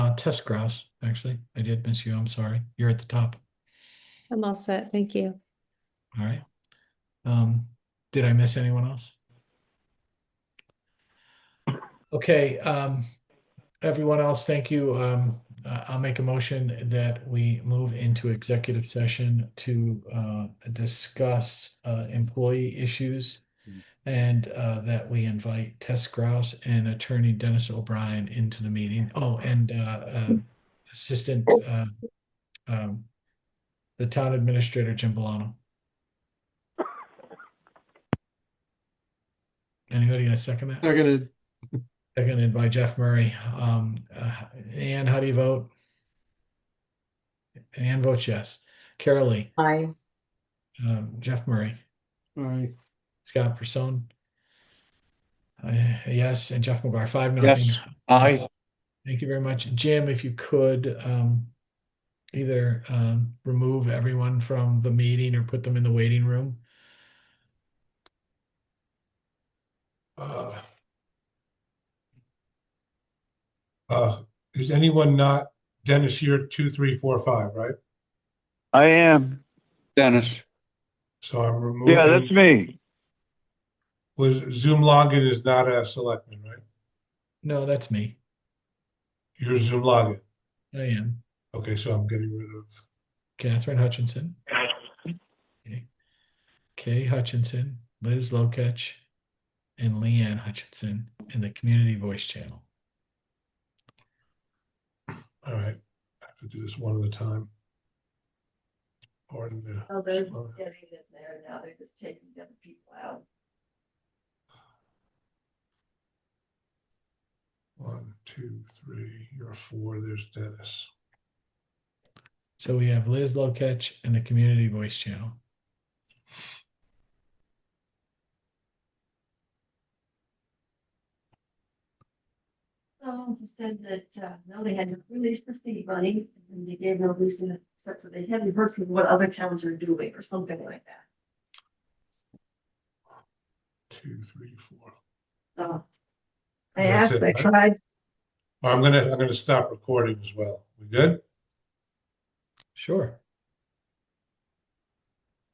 uh, Tess Grouse, actually. I did miss you. I'm sorry. You're at the top. I'm all set. Thank you. All right. Um, did I miss anyone else? Okay, um, everyone else, thank you. Um, I- I'll make a motion that we move into executive session to, uh, discuss, uh, employee issues. And, uh, that we invite Tess Grouse and attorney Dennis O'Brien into the meeting. Oh, and, uh, uh, assistant, uh, um, the town administrator, Jim Bolano. Anybody gonna second that? Seconded, Seconded by Jeff Murray. Um, uh, Ann, how do you vote? Ann votes yes. Carol Lee, Aye. um, Jeff Murray, aye. Scott Person. Uh, yes, and Jeff McGuire, five, Yes. nothing. Uh, Aye. Thank you very much. Jim, if you could, um, either, um, remove everyone from the meeting or put them in the waiting room. Uh, uh, Is anyone not, Dennis, you're two, three, four, five, right? I am. Dennis. So I'm removing. Yeah, that's me. Was Zoom login is not a selectman, right? No, that's me. You're Zoom login. I am Okay, so I'm getting rid of, Catherine Hutchinson. Okay. Kay Hutchinson, Liz Lokech, and Leanne Hutchinson in the Community Voice Channel. all right, I have to do this one at a time. Pardon the- Oh, they're just getting in there now, they're just taking the other people out. One, two, three, you're four, there's Dennis. So we have Liz Lokech and the Community Voice Channel. So he said that, uh, no, they hadn't released the seed money, and they gave no reason, except that they hadn't heard from what other towns are doing, or something like that. Two, three, four. So Uh, I That's it, asked, I right? tried, I'm gonna, I'm gonna stop recording as well. We good? Sure.